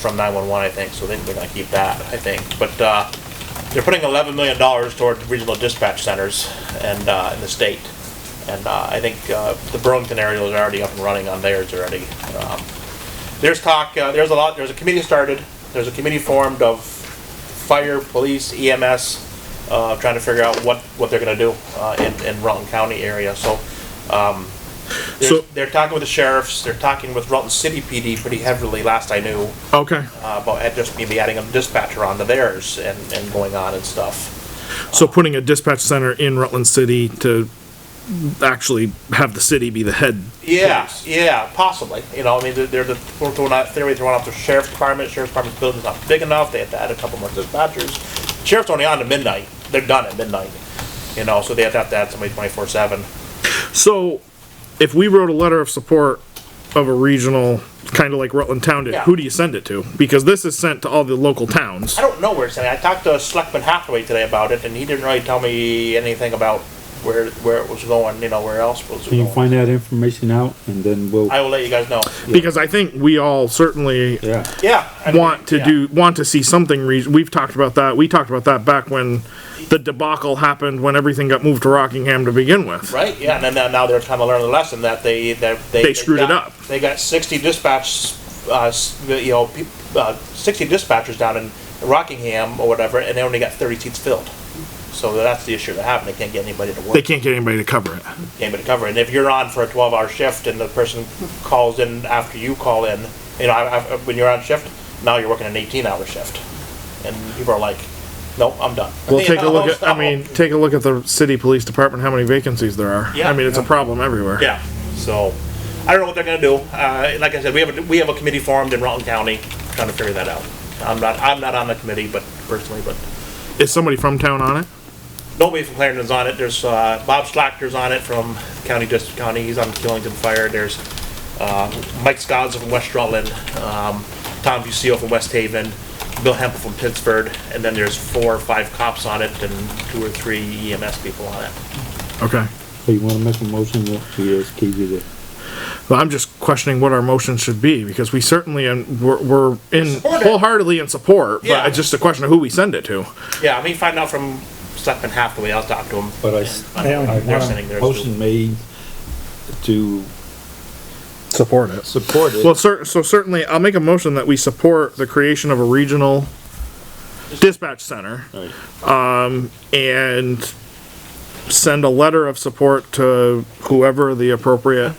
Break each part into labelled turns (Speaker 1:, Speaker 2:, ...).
Speaker 1: from 911, I think, so I think they're gonna keep that, I think. But, uh, they're putting eleven million dollars toward regional dispatch centers and, uh, in the state. And, uh, I think, uh, the Burlington area is already up and running on theirs already. Um, There's talk, uh, there's a lot, there's a committee started, there's a committee formed of fire, police, EMS, uh, trying to figure out what, what they're gonna do, uh, in, in Rutland County area, so, um, they're,
Speaker 2: So-
Speaker 1: they're talking with the sheriffs, they're talking with Rutland City PD pretty heavily, last I knew
Speaker 2: Okay,
Speaker 1: uh, about add- just maybe adding a dispatcher onto theirs and, and going on and stuff.
Speaker 2: so putting a dispatch center in Rutland City to actually have the city be the head.
Speaker 1: Yeah, yeah, possibly. You know, I mean, they're, they're the, we're throwing out, they're throwing out the sheriff's department. Sheriff's department's building's not big enough. They have to add a couple more dispatchers. Sheriff's only on to midnight. They're done at midnight. You know, so they have to have to add somebody 24 7.
Speaker 2: So if we wrote a letter of support of a regional, kind of like Rutland Town did,
Speaker 1: Yeah.
Speaker 2: who do you send it to? Because this is sent to all the local towns.
Speaker 1: I don't know where it's at. I talked to Selectman Hathaway today about it, and he didn't really tell me anything about where where it was going, you know, where else it was
Speaker 3: Can you
Speaker 1: going.
Speaker 3: find that information out and then we'll,
Speaker 1: I will let you guys know.
Speaker 2: Because I think we all certainly
Speaker 3: yeah.
Speaker 1: Yeah. I mean,
Speaker 2: want to
Speaker 1: yeah.
Speaker 2: do want to see something re- we've talked about that we talked about that back when the debacle happened when everything got moved to rockingham to begin with
Speaker 1: Right, yeah, and then now- now they're trying to learn the lesson that they, that they.
Speaker 2: They screwed it
Speaker 1: got-
Speaker 2: up.
Speaker 1: They got sixty dispatch, uh, s- you know, peop- uh, sixty dispatchers down in Rockingham or whatever, and they only got thirty seats filled. So that's the issue that happened, they can't get anybody to work,
Speaker 2: they
Speaker 1: can't
Speaker 2: can't get anybody to cover it
Speaker 1: get anybody to cover, and if you're on for a twelve-hour shift and the person calls in after you call in, you know, I, I, when you're on shift, now you're working an eighteen-hour shift, and people are like, nope, I'm done.
Speaker 2: we'll
Speaker 1: You
Speaker 2: take a
Speaker 1: know,
Speaker 2: look at i
Speaker 1: so-
Speaker 2: mean take a look at the city police department how many vacancies there are
Speaker 1: Yeah.
Speaker 2: i mean it's a problem everywhere
Speaker 1: Yeah, so, I don't know what they're gonna do. Uh, like I said, we have, a we have a committee formed in Rutland County, trying to figure that out. I'm not, I'm not on the committee, but personally, but
Speaker 2: is somebody from town on it
Speaker 1: nobody from Clarendon's on it. There's, uh, Bob Schlachter's on it from County District County, he's on Killington Fire. There's, uh, Mike Scott from West Rutland, um, Tom Busio from West Haven, Bill Hempel from Pittsford, and then there's four or five cops on it and two or three EMS people on it.
Speaker 2: okay
Speaker 3: So you wanna make a motion that we ask Katie to,
Speaker 2: but i'm just questioning what our motion should be because we certainly and we're, we're in
Speaker 1: Support it.
Speaker 2: wholeheartedly in support
Speaker 1: Yeah.
Speaker 2: but it's just a question of who we send it to
Speaker 1: Yeah, I mean, find out from Selectman Hathaway, I'll talk to him.
Speaker 3: but I, s- I want
Speaker 1: sending
Speaker 3: a
Speaker 1: theirs
Speaker 3: motion made to
Speaker 2: support it
Speaker 3: support it.
Speaker 2: Well, cer- so certainly, I'll make a motion that we support the creation of a regional dispatch center
Speaker 3: Alright.
Speaker 2: and send a letter of support to whoever the appropriate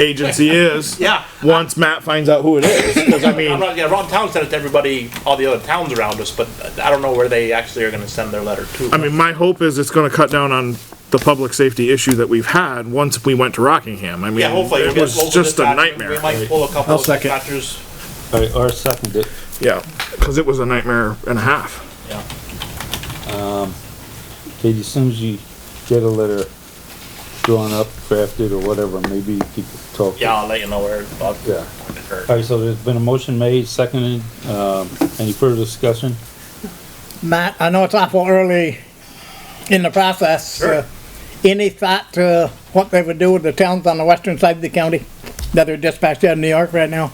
Speaker 2: agency is.
Speaker 1: Yeah.
Speaker 2: Once Matt finds out who it is, 'cause I
Speaker 1: I'm
Speaker 2: mean,
Speaker 1: not, yeah, Ron Town sent it to everybody, all the other towns around us, but I don't know where they actually are gonna send their letter to.
Speaker 2: I mean, my hope is it's gonna cut down on the public safety issue that we've had once we went to Rockingham. I mean,
Speaker 1: Yeah, hopefully. we'll
Speaker 2: it
Speaker 1: get
Speaker 2: was
Speaker 1: local
Speaker 2: just a
Speaker 1: dispatchers. We
Speaker 2: nightmare.
Speaker 1: might pull a couple
Speaker 4: I'll
Speaker 1: of
Speaker 4: second.
Speaker 1: dispatchers,
Speaker 3: All right, or second it.
Speaker 2: Yeah, cause it was a nightmare and a half.
Speaker 1: yeah.
Speaker 3: Katie, as soon as you get a letter drawn up, drafted or whatever, maybe you could talk.
Speaker 1: Yeah, I'll let you know where, I'll,
Speaker 3: Yeah.
Speaker 1: or-
Speaker 3: All right, so there's been a motion made, seconded, um, any further discussion?
Speaker 4: Matt, I know it's awful early in the process.
Speaker 1: Sure.
Speaker 4: uh, Any thought to what they would do with the towns on the western side of the county that are dispatched out of New York right now?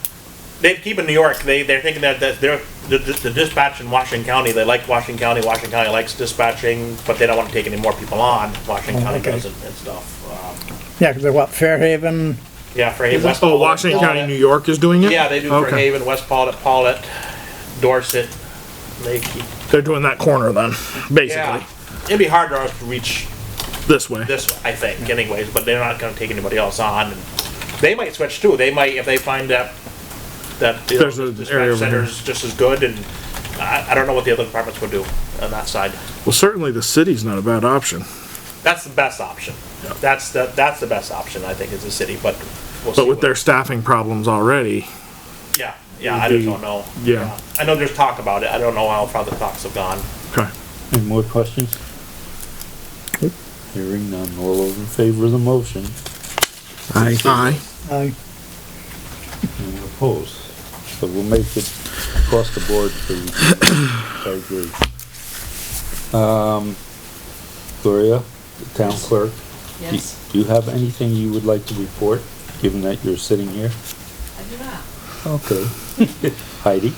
Speaker 1: they keep in New York. They they're thinking that that they're the, the the dispatch in Washington County. They like Washington County. Washington County likes dispatching, but they don't want to take any more people on. Washington County
Speaker 4: okay.
Speaker 1: doesn't and stuff. Um,
Speaker 4: Yeah, 'cause they're what, Fairhaven?
Speaker 1: yeah, for Haven, West.
Speaker 2: Oh,
Speaker 1: Paulet,
Speaker 2: Washington County,
Speaker 1: Paulet.
Speaker 2: New York is doing it?
Speaker 1: Yeah, they do for
Speaker 2: Okay.
Speaker 1: Haven, West Paulet, Paulet, Dorset. They keep
Speaker 2: They're doing that corner then, basically,
Speaker 1: Yeah, it'd be hard for us to reach
Speaker 2: this way.
Speaker 1: this, I think, anyways, but they're not gonna take anybody else on. and They might switch too, they might, if they find that, that the
Speaker 2: There's an area
Speaker 1: dispatch
Speaker 2: over here.
Speaker 1: center's just as good, and I, I don't know what the other departments would do on that side.
Speaker 2: Well, certainly the city's not a bad option,
Speaker 1: That's the best option. That's the, that's the best option, I think, is the city, but we'll see.
Speaker 2: but with
Speaker 1: what-
Speaker 2: their staffing problems already,
Speaker 1: Yeah, yeah, I just don't know.
Speaker 2: yeah,
Speaker 1: I know there's talk about it, I don't know how far the talks have gone.
Speaker 2: okay.
Speaker 3: Any more questions? Hearing none, all those in favor of the motion,
Speaker 2: Aye. Aye.
Speaker 4: I
Speaker 3: anyone opposed? So we'll make it across the board for you. I agree. Um, Gloria, the town clerk, do
Speaker 5: Yes,
Speaker 3: do you have anything you would like to report, given that you're sitting here?
Speaker 5: I do not.
Speaker 3: Okay. Heidi?